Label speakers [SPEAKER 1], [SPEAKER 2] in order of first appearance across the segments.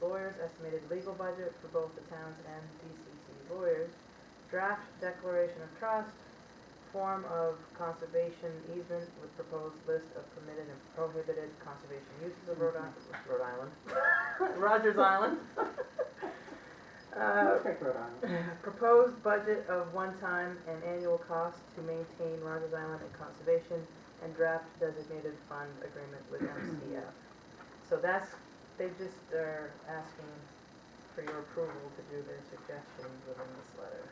[SPEAKER 1] lawyers, estimated legal budget for both the towns and DCC lawyers, draft declaration of trust, form of conservation easement with proposed list of permitted and prohibited conservation uses of Rhode Island, Rhode Island, Rogers Island. Uh,
[SPEAKER 2] Let's take Rhode Island.
[SPEAKER 1] Proposed budget of one-time and annual cost to maintain Rogers Island and conservation and draft designated fund agreement with MCF. So that's, they just are asking for your approval to do their suggestions within this letter.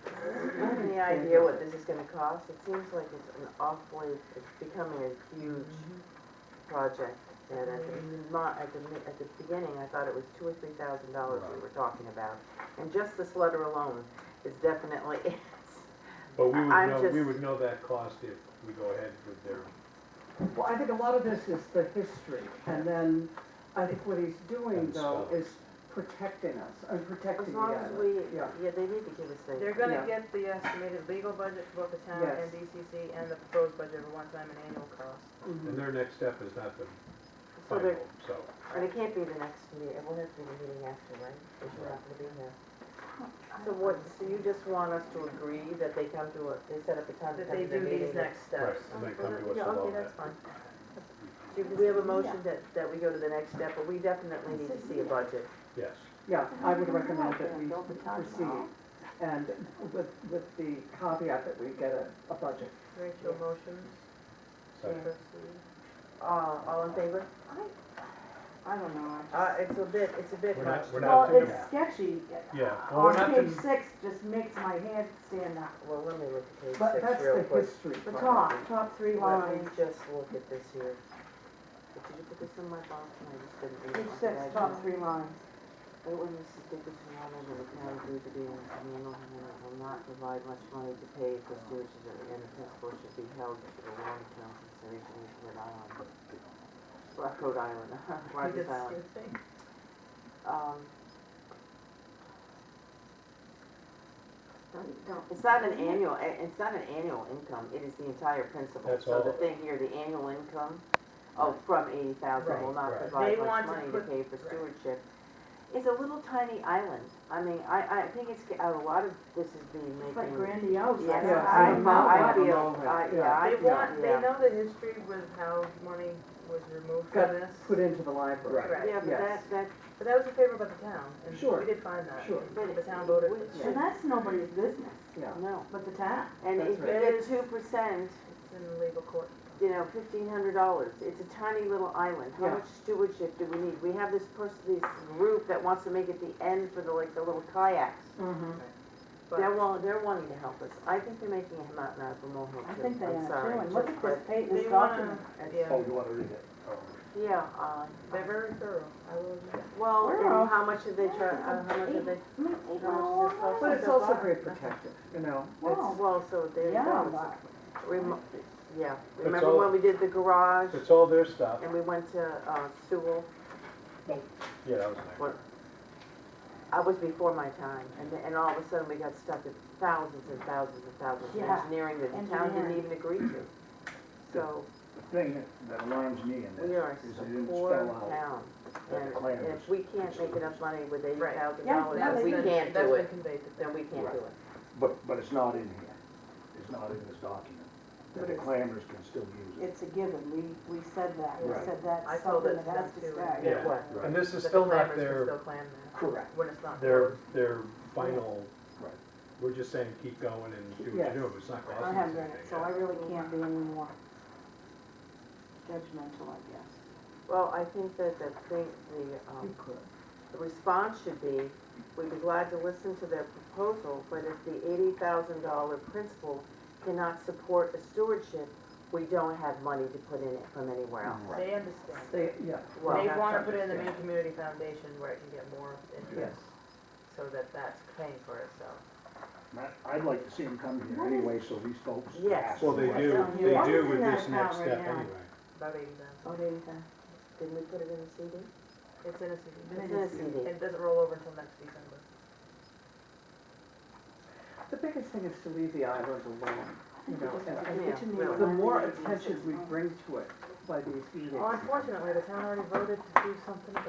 [SPEAKER 3] Do you have any idea what this is gonna cost? It seems like it's an awfully, it's becoming a huge Mm-hmm. project. And at the, mo- at the, mi- at the beginning, I thought it was two or three thousand dollars we were talking about. And just this letter alone is definitely,
[SPEAKER 4] But we would
[SPEAKER 3] I'm
[SPEAKER 4] know, we
[SPEAKER 3] just-
[SPEAKER 4] would know that cost if we go ahead with their,
[SPEAKER 2] Well, I think a lot of this is the history, and then I think what he's doing
[SPEAKER 4] And
[SPEAKER 2] though
[SPEAKER 4] stuff.
[SPEAKER 2] is protecting us, and
[SPEAKER 3] as
[SPEAKER 2] protecting the
[SPEAKER 3] long as
[SPEAKER 2] island.
[SPEAKER 3] we,
[SPEAKER 2] Yeah,
[SPEAKER 3] yeah, they need to give us
[SPEAKER 1] They're
[SPEAKER 3] things.
[SPEAKER 1] gonna
[SPEAKER 2] Yeah.
[SPEAKER 1] get the estimated legal budget for both the town and
[SPEAKER 2] Yes.
[SPEAKER 1] DCC and the proposed budget of one-time and annual cost.
[SPEAKER 2] mhm.
[SPEAKER 4] and their next step is not the
[SPEAKER 3] So they're,
[SPEAKER 4] final, so.
[SPEAKER 3] and it can't be the next meeting, it will have to be the meeting after, right? If you're not gonna be here. So what, so you just want us to agree that they come to a, they set up a time to
[SPEAKER 1] That
[SPEAKER 3] come
[SPEAKER 1] they
[SPEAKER 3] to the
[SPEAKER 1] do
[SPEAKER 3] meeting?
[SPEAKER 1] these next
[SPEAKER 4] Right,
[SPEAKER 1] steps.
[SPEAKER 4] and they come to us
[SPEAKER 3] Yeah,
[SPEAKER 4] about
[SPEAKER 3] okay,
[SPEAKER 4] that.
[SPEAKER 3] that's fine. Do we have a motion that, that we go to the next step, but we definitely need to see a budget.
[SPEAKER 4] Yes,
[SPEAKER 2] Yeah, I would recommend that we proceed, and with, with the caveat that we get a, a budget.
[SPEAKER 1] Rachel motions,
[SPEAKER 4] so
[SPEAKER 1] proceed.
[SPEAKER 3] Uh, all in favor?
[SPEAKER 5] I don't know.
[SPEAKER 3] Uh, it's a bit, it's a bit
[SPEAKER 4] we're
[SPEAKER 3] much.
[SPEAKER 4] not, we're
[SPEAKER 5] Well,
[SPEAKER 4] not to,
[SPEAKER 5] it's sketchy.
[SPEAKER 4] yeah, well, we're
[SPEAKER 5] On
[SPEAKER 4] not
[SPEAKER 5] page
[SPEAKER 4] to,
[SPEAKER 5] six just makes my head stand up.
[SPEAKER 3] Well, let me look at page
[SPEAKER 2] But
[SPEAKER 3] six
[SPEAKER 2] that's
[SPEAKER 3] real
[SPEAKER 2] the
[SPEAKER 3] quick.
[SPEAKER 2] history
[SPEAKER 5] The
[SPEAKER 2] part.
[SPEAKER 5] top, top three
[SPEAKER 3] Let me
[SPEAKER 5] lines.
[SPEAKER 3] just look at this here. Did you put this in my box? And I just didn't read it.
[SPEAKER 5] Page six, top three lines.
[SPEAKER 3] It was Mrs. Dickinson, I know the county agreed to be in the communal, and it will not provide much money to pay for sewage at the end of principle should be held for the long-term consideration of Rhode Island. Rock- Rhode Island, Rogers Island. Um, don't- don't- It's not an annual, i- it's not an annual income, it is the entire principal.
[SPEAKER 4] That's
[SPEAKER 3] So the
[SPEAKER 4] all.
[SPEAKER 3] thing here, the annual income, oh, from eighty thousand will
[SPEAKER 1] Right,
[SPEAKER 3] not
[SPEAKER 4] right.
[SPEAKER 1] They
[SPEAKER 3] provide
[SPEAKER 1] want
[SPEAKER 3] much
[SPEAKER 1] to
[SPEAKER 3] money to
[SPEAKER 1] put-
[SPEAKER 3] pay for
[SPEAKER 1] right.
[SPEAKER 3] stewardship. It's a little tiny island, I mean, I, I think it's, g- a lot of this is being
[SPEAKER 5] It's like
[SPEAKER 3] making.
[SPEAKER 5] grandiose.
[SPEAKER 3] Yes,
[SPEAKER 2] Yeah,
[SPEAKER 3] I,
[SPEAKER 2] I'm not
[SPEAKER 3] I
[SPEAKER 2] like them
[SPEAKER 3] feel,
[SPEAKER 2] all,
[SPEAKER 3] I,
[SPEAKER 2] yeah.
[SPEAKER 3] yeah, I
[SPEAKER 1] They
[SPEAKER 3] feel,
[SPEAKER 1] want, they
[SPEAKER 3] yeah.
[SPEAKER 1] know the history with how money was removed
[SPEAKER 2] Got
[SPEAKER 1] from this.
[SPEAKER 2] put into the library.
[SPEAKER 1] Right.
[SPEAKER 3] Yeah, but
[SPEAKER 2] yes.
[SPEAKER 3] that, that,
[SPEAKER 1] But that was a favor by the town, and
[SPEAKER 2] Sure.
[SPEAKER 1] we did find that.
[SPEAKER 2] Sure.
[SPEAKER 3] but.
[SPEAKER 1] The town voted for
[SPEAKER 3] it-
[SPEAKER 1] that.
[SPEAKER 5] And that's nobody's business,
[SPEAKER 2] Yeah,
[SPEAKER 3] No,
[SPEAKER 5] but the town.
[SPEAKER 3] and
[SPEAKER 2] That's
[SPEAKER 3] if you
[SPEAKER 2] right.
[SPEAKER 3] get two percent,
[SPEAKER 1] It's in the legal court.
[SPEAKER 3] you know, fifteen hundred dollars, it's a tiny little island, how
[SPEAKER 2] Yeah.
[SPEAKER 3] much stewardship do we need? We have this person, this group that wants to make it the end for the, like, the little kayaks.
[SPEAKER 2] Mm-hmm.
[SPEAKER 1] But
[SPEAKER 3] They're wanting, they're wanting to help us, I think they're making a mountain out of a molehill
[SPEAKER 5] I
[SPEAKER 3] too.
[SPEAKER 5] think they
[SPEAKER 3] I'm
[SPEAKER 5] are
[SPEAKER 3] sorry,
[SPEAKER 5] too, and look
[SPEAKER 3] just
[SPEAKER 5] at this page,
[SPEAKER 1] they
[SPEAKER 5] this document.
[SPEAKER 1] Oh, wanna,
[SPEAKER 4] Oh.
[SPEAKER 1] yeah,
[SPEAKER 6] you wanna read it?
[SPEAKER 3] Yeah, uh,
[SPEAKER 1] they're very thorough, I will admit. that.
[SPEAKER 3] well,
[SPEAKER 5] We're
[SPEAKER 3] and
[SPEAKER 5] all-
[SPEAKER 3] how much did they charge, uh, how much did they,
[SPEAKER 5] I mean, they
[SPEAKER 3] How much
[SPEAKER 5] go
[SPEAKER 3] does it cost?
[SPEAKER 2] But it's
[SPEAKER 3] So
[SPEAKER 2] also
[SPEAKER 3] far-
[SPEAKER 2] very protective, you know?
[SPEAKER 5] Wow.
[SPEAKER 2] It's
[SPEAKER 3] well, so there you
[SPEAKER 5] Yeah,
[SPEAKER 3] go.
[SPEAKER 5] but-
[SPEAKER 3] It's remo- Yeah,
[SPEAKER 4] all-
[SPEAKER 3] remember when we did the garage
[SPEAKER 4] it's all their stuff,
[SPEAKER 3] and we went to, uh, Sewell?
[SPEAKER 4] yeah, that was nice.
[SPEAKER 3] What? I was before my time, and, then- and all of a sudden we got stuck at thousands and thousands and thousands of
[SPEAKER 5] Yeah,
[SPEAKER 3] engineering that the town didn't
[SPEAKER 5] engineering.
[SPEAKER 3] even agree to. So,
[SPEAKER 6] The thing that- that alarms me in
[SPEAKER 3] we are
[SPEAKER 6] this is
[SPEAKER 3] a
[SPEAKER 6] they didn't
[SPEAKER 3] poor
[SPEAKER 6] spell out
[SPEAKER 3] town,
[SPEAKER 6] what the
[SPEAKER 3] and
[SPEAKER 6] plan
[SPEAKER 3] if we can't make enough money with eighty
[SPEAKER 1] Right.
[SPEAKER 3] thousand
[SPEAKER 5] Yeah,
[SPEAKER 3] dollars,
[SPEAKER 5] no,
[SPEAKER 3] then
[SPEAKER 1] That's
[SPEAKER 3] we
[SPEAKER 1] been-
[SPEAKER 3] can't do
[SPEAKER 1] That's
[SPEAKER 3] it,
[SPEAKER 1] been conveyed to
[SPEAKER 3] then
[SPEAKER 1] them.
[SPEAKER 3] we can't do it.
[SPEAKER 6] But, but it's not in here. It's not in this document. That the clamors can still use it.
[SPEAKER 5] It's a given, we, we said that, we
[SPEAKER 6] Right.
[SPEAKER 5] said that's
[SPEAKER 1] I told it
[SPEAKER 5] something
[SPEAKER 1] to
[SPEAKER 5] that has
[SPEAKER 1] them
[SPEAKER 5] to
[SPEAKER 1] too.
[SPEAKER 5] stay.
[SPEAKER 4] Yeah.
[SPEAKER 3] Right.
[SPEAKER 1] That
[SPEAKER 4] And this is
[SPEAKER 1] the
[SPEAKER 4] still not
[SPEAKER 1] claimers can
[SPEAKER 4] their,
[SPEAKER 1] Still claim that,
[SPEAKER 6] Correct.
[SPEAKER 1] when it's not.
[SPEAKER 4] their,
[SPEAKER 1] closed.
[SPEAKER 4] their final,
[SPEAKER 6] Right.
[SPEAKER 4] we're just saying keep going and do what
[SPEAKER 2] Yes.
[SPEAKER 4] you do, it's not costing
[SPEAKER 5] I
[SPEAKER 4] us
[SPEAKER 5] haven't
[SPEAKER 4] anything.
[SPEAKER 5] read it, so I really can't be any more judgmental, I guess.
[SPEAKER 3] Well, I think that the thing, the,
[SPEAKER 2] You
[SPEAKER 3] um,
[SPEAKER 2] could.
[SPEAKER 3] the response should be, we'd be glad to listen to their proposal, but if the eighty thousand dollar principal cannot support a stewardship, we don't have money to put in it from anywhere else.
[SPEAKER 6] Right.
[SPEAKER 1] They understand. They
[SPEAKER 2] They, yeah,
[SPEAKER 3] Well, that's
[SPEAKER 1] wanna put it in the
[SPEAKER 2] understand.
[SPEAKER 1] main community foundation where it can get more
[SPEAKER 2] yes.
[SPEAKER 1] interest, so that that's paying for itself.
[SPEAKER 6] And I- I'd like to see them come here anyway, so these folks. can
[SPEAKER 3] Yes.
[SPEAKER 6] ask
[SPEAKER 4] Well, they
[SPEAKER 6] questions.
[SPEAKER 4] do,
[SPEAKER 5] Well,
[SPEAKER 4] they
[SPEAKER 5] what is
[SPEAKER 4] do
[SPEAKER 5] in
[SPEAKER 4] with
[SPEAKER 5] that
[SPEAKER 4] this next
[SPEAKER 5] account right
[SPEAKER 4] step
[SPEAKER 5] now?
[SPEAKER 4] anyway.
[SPEAKER 1] About eighty thousand.
[SPEAKER 5] Oh, there you go.
[SPEAKER 3] Didn't we put it in the CD?
[SPEAKER 1] It's in a CD.
[SPEAKER 3] It's in a CD.
[SPEAKER 1] It doesn't roll over until next December.
[SPEAKER 2] The biggest thing is to leave the island alone, you know, and I
[SPEAKER 3] Yeah,
[SPEAKER 2] think
[SPEAKER 3] really.
[SPEAKER 2] the more attention we bring to it by these meetings.
[SPEAKER 1] Well, unfortunately, the town already voted to do something about